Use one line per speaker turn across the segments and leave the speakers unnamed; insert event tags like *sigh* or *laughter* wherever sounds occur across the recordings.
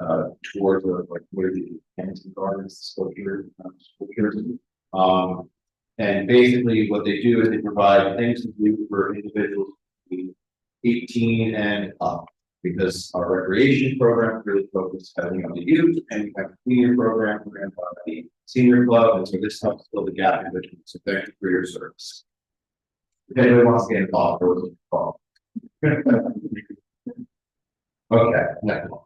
uh, towards the, like, where the Kensington Gardens, still here, um, still here. Um, and basically what they do is they provide things to do for individuals between eighteen and up. Because our recreation program really focuses heavily on the youth and we have a senior program, we're gonna have the senior club, and so this helps fill the gap in between. So thank you for your service. If anyone wants to get involved, or was involved. *laughs* Okay, next one.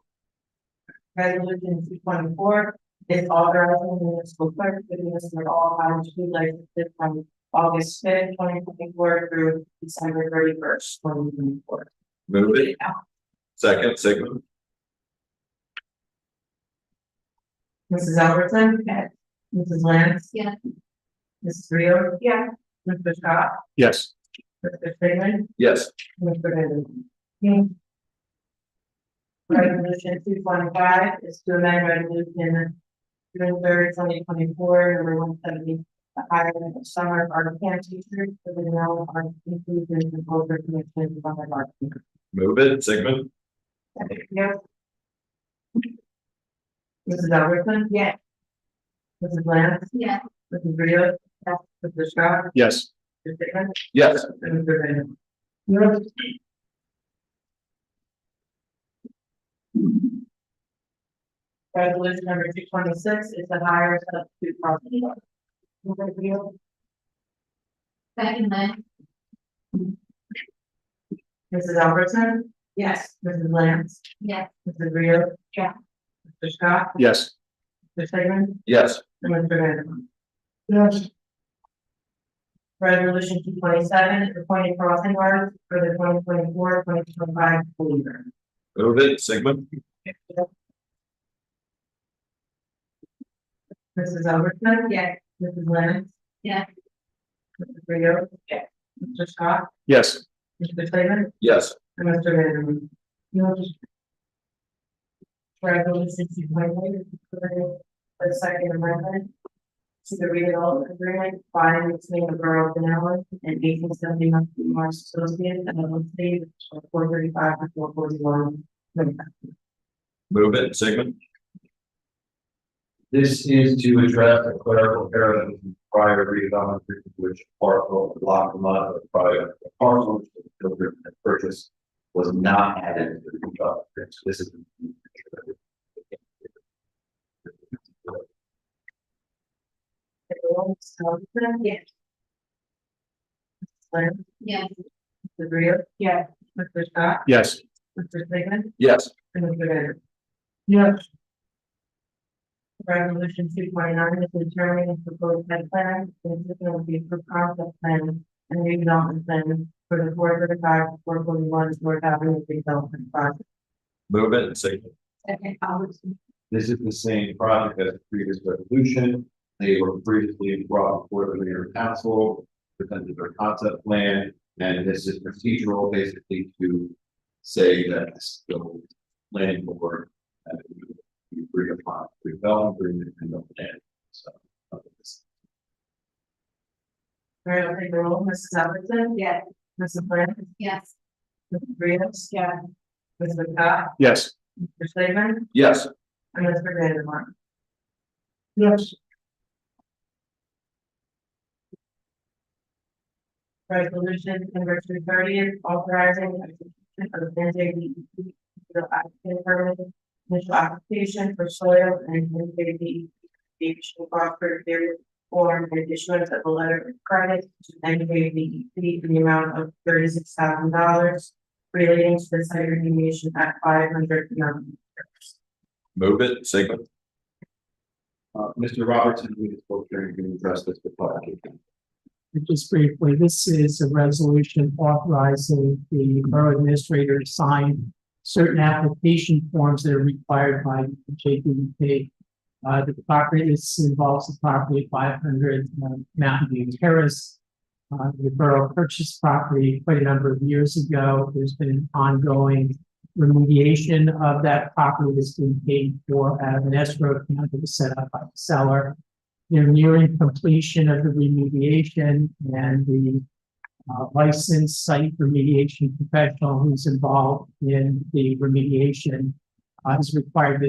Resolution two twenty-four, is authorizing the municipal clerk to administer all items to be licensed from August fifth, twenty twenty-four through December thirty-first, twenty twenty-four.
Move it. Second, Sigmund.
Mrs. Albertson? Yes. Mrs. Lance?
Yeah.
Mrs. Rio? Yeah. Mr. Scott?
Yes.
Mr. Freeman?
Yes.
Mr. Benson? Resolution two twenty-five is to amend resolution June third, twenty twenty-four, number one seventy, the hiring of summer art camp teachers for the now art inclusion and culture commission by the art.
Move it. Sigmund.
Yes. Mrs. Albertson? Yes. Mrs. Lance?
Yeah,
Mrs. Rio? Yes. Mr. Scott?
Yes.
Mr. Freeman?
Yes.
Mr. Benson? Resolution number two twenty-six is the hire of two property. owners.
second line,
Mrs. Albertson? Yes. Mrs. Lance?
yeah,
Mrs. Rio?
Yeah.
Mr. Scott?
Yes.
Mr. Freeman?
Yes.
And Mr. Vanderpump? Yes. Resolution two twenty-seven, appointing crossing guards for the 2024-2025 school year.
Move it. Sigmund.
Mrs. Albertson? Yes. Mrs. Lance?
Yes.
Mrs. Rio? Yes. Mr. Scott?
Yes.
Mr. Freeman?
Yes.
And Mr. Vanderpump? Resolution two twenty-eight, approving the second amendment to the redevelopment agreement by and between the Borough of Pinellas and eighteen seventy-nine Marsh Associates and the state of four thirty-five to four forty-one.
Move it. Sigmund.
This is to address a clerical error that was in prior redevelopment, which parcel block a lot of prior parcel, which the builder had purchased was not added to the redevelopment. So This is.
Yes. Lynn,
yeah,
Mr. Greer. Yes. Mr. Scott,
Yes.
Mr. Sigmund,
Yes.
and Mr. Vander. Yes. Resolution two twenty-nine is determining the proposed head plan, consisting of the approved concept plan and redevelopment plan for the four thirty-five, four forty-one, North Avenue redevelopment project.
Move it. Sigmund.
second Albertson,
This is the same project as the previous resolution. They were previously brought before the mayor and council, presented their concept plan, and this is procedural basically to say that this bill planning board uh, you agree upon redevelopment agreement and the plan, so. uh, this-
All right, I'll take the roll. Mrs. Albertson?
Yes.
Mrs. Lance?
yes,
Mrs. Rios? Yeah. Mr. Scott?
Yes.
Mr. Slavin?
Yes.
And Mr. Vandermark? Yes. Resolution number two thirty is authorizing execution of N J D E P. The applicant permit, initial application for soil and N J D E P. Additional Crawford period form and issuance of a letter of credit to N J D E P in the amount of thirty-six thousand dollars. Relating to the site remediation at five hundred Mountain.
Move it. Sigmund.
Uh, Mr. Robertson, we spoke during, you addressed this before. I came in.
Just briefly, this is a resolution authorizing the borough administrator to sign certain application forms that are required by JPP. Uh, the property, this involves the property five hundred um, Mountain View Terrace. Uh, the borough purchased property quite a number of years ago. There's been an ongoing remediation of that property that's been paid for out of an escrow account that was set up by the seller they're nearing completion of the remediation and the uh, licensed site remediation professional who's involved in the remediation uh, is required to